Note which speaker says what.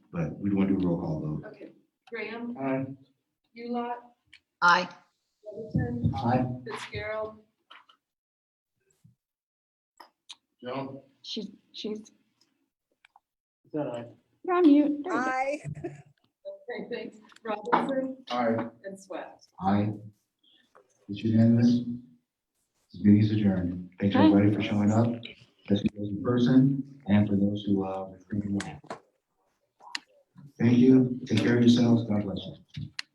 Speaker 1: but we want to do a roll call vote.
Speaker 2: Okay, Graham,
Speaker 3: Aye.
Speaker 2: Ulot,
Speaker 4: Aye.
Speaker 2: Middleton,
Speaker 3: Aye.
Speaker 2: Fitzgerald,
Speaker 3: Joan?
Speaker 5: She's, she's,
Speaker 3: Is that aye?
Speaker 5: you're on mute. There you go.
Speaker 6: Aye.
Speaker 2: okay, thanks, Robinson
Speaker 3: Aye.
Speaker 2: and Swack.
Speaker 1: Aye. It's unanimous. This meeting is adjourned. Thanks
Speaker 5: Aye.
Speaker 1: everybody for showing up, especially those in person and for those who uh, are. streaming live. Thank you. Take care of yourselves. God bless you.